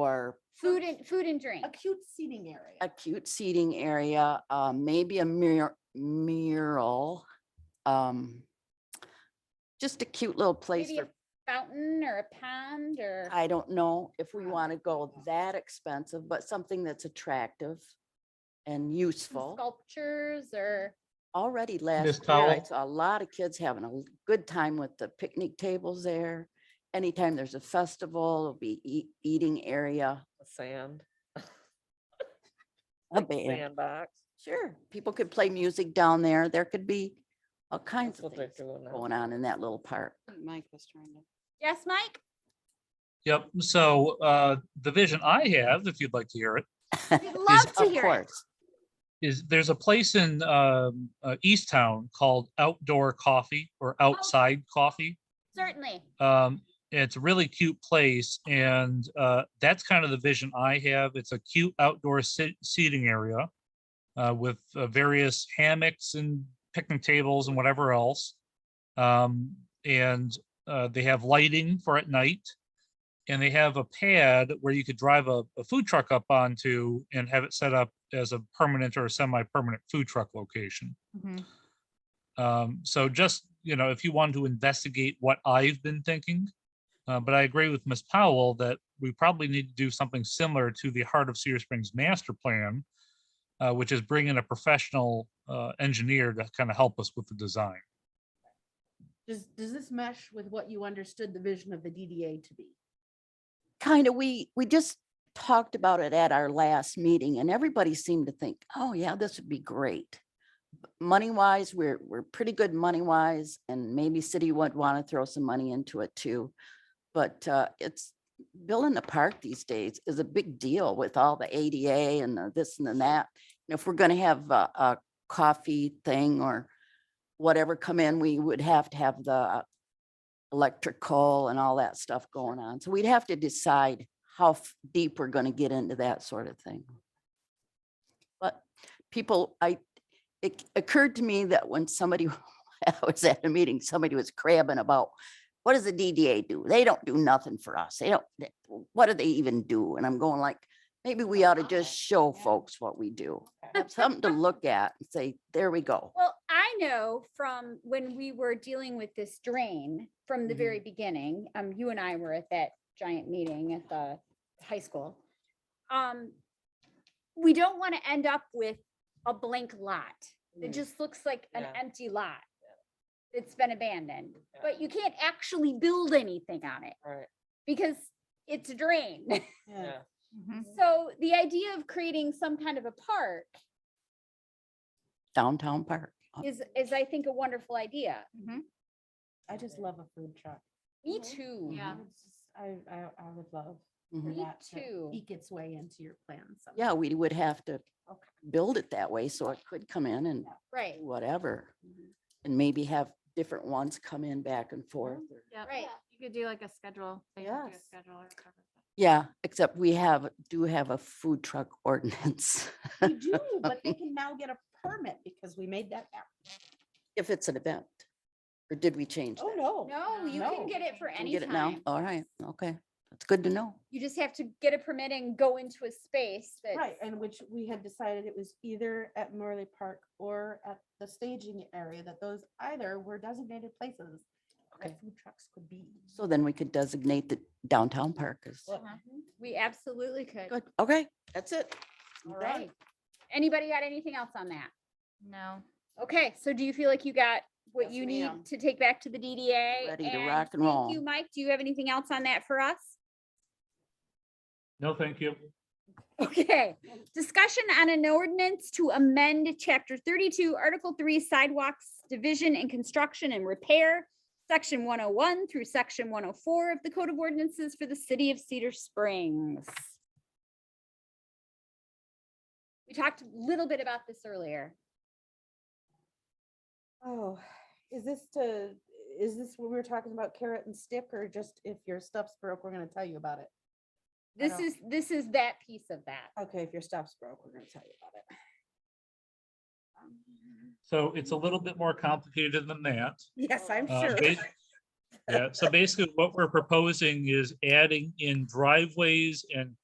for Food and, food and drink. a cute seating area. a cute seating area, uh, maybe a mur- mural. Um, just a cute little place Maybe a for, fountain or a pond or, I don't know if we Pond, want to go yeah. that expensive, but something that's attractive and some useful. sculptures or, Already last year, Towle? I saw a lot of kids having a l- good time with the picnic tables there. Anytime there's a festival, it'll be ea- eating area, Sand, a band. sandbox. Sure, people could play music down there. There could be all kinds That's of what they're things doing now. going on in that little park. Mike was trying to. yes, Mike? Yep, so uh, the vision I have, if you'd like to hear it, We'd love to Of hear it. course, is there's a place in um, uh, East Town called Outdoor Coffee or Outside Coffee. Certainly. Um, It's a really cute place and uh, that's kind of the vision I have. It's a cute outdoor sit- seating area uh, with uh, various hammocks and picnic tables and whatever else. Um, And uh, they have lighting for at night. And they have a pad where you could drive a a food truck up onto and have it set up as a permanent or a semi-permanent food truck location. Mm-hmm. Um, so just, you know, if you want to investigate what I've been thinking, uh, but I agree with Ms. Powell that we probably need to do something similar to the Heart of Cedar Springs master plan, uh, which is bring in a professional, uh, engineer to kind of help us with the design. Does, does this mesh with what you understood the vision of the DDA to be? kind of, we, we just talked about it at our last meeting and everybody seemed to think, oh yeah, this would be great. Money wise, we're, we're pretty good money wise and maybe city would want to throw some money into it too. But uh, it's, building a park these days is a big deal with all the ADA and the this and the that. And if we're gonna have a, a coffee thing or whatever come in, we would have to have the electrical and all that stuff going on. So we'd have to decide how f- deep we're gonna get into that sort of thing. But people, I, it occurred to me that when somebody, I was at a meeting, somebody was crabbing about what does the DDA do? They don't do nothing for us. They don't, they- what do they even do? And I'm going like, maybe we ought to just show Yeah. folks what we do. Have something to look at and say, there we go. Well, I know from when we were dealing with this drain from the Mhm. very beginning, um, you and I were at that giant meeting at the high school. Um, we don't want to end up with a blank lot. It Mm. just looks like an Yeah. empty lot. It's been abandoned, Yeah. but you can't actually build anything on it Right, because it's a drain. Mm-hmm. yeah. So the idea of creating some kind of a park Downtown park. is, is I think a wonderful idea. I just love a food truck. Me Mhm. too. I would just- I, I, I would love for Mhm. Me that too. to eke its way into your plans. Yeah, we would have to Okay. build it that way so it could come in and Right. do whatever. And maybe have different ones come in back and forth. or- Right. You could do like a schedule. they could do a Yes. schedule or cover that. Yeah, except we have, do have a food truck ordinance We do, but they can now get a permit because we made that happen. if it's an event. Or did we change Oh, that? no. No, you can No. get it for Can any we Get it now? Oh. time. All right, okay. That's good to know. You just have to get a permit and go into a space that. Right, and which we had decided it was either at Morley Park or at the staging area, that those either were designated places Okay. that food trucks could be. So then we could designate the downtown park as, Uh-huh. Well, We absolutely could. good, okay, that's it. I'm All done. right. Anybody got anything else on that? No. Okay, so do you feel like you got what Yes, you need ma'am. to take back to the DDA? Ready to rock and thank roll. You, Mike, do you have anything else on that for us? No, thank you. Okay, discussion on an ordinance to amend chapter thirty-two, article three sidewalks, division and construction and repair. Section one oh one through section one oh four of the code of ordinances for the city of Cedar Springs. We talked a little bit about this earlier. Oh, is this to, is this what we were talking about carrot and stick or just if your stuff's broke, we're gonna tell you about it? I This don't- is, this is that piece of that. Okay, if your stuff's broke, we're gonna tell you about it. Um, So it's a little bit more complicated than that. Yes, I'm Uh, sure. ba- Yeah, so basically what we're proposing is adding in driveways and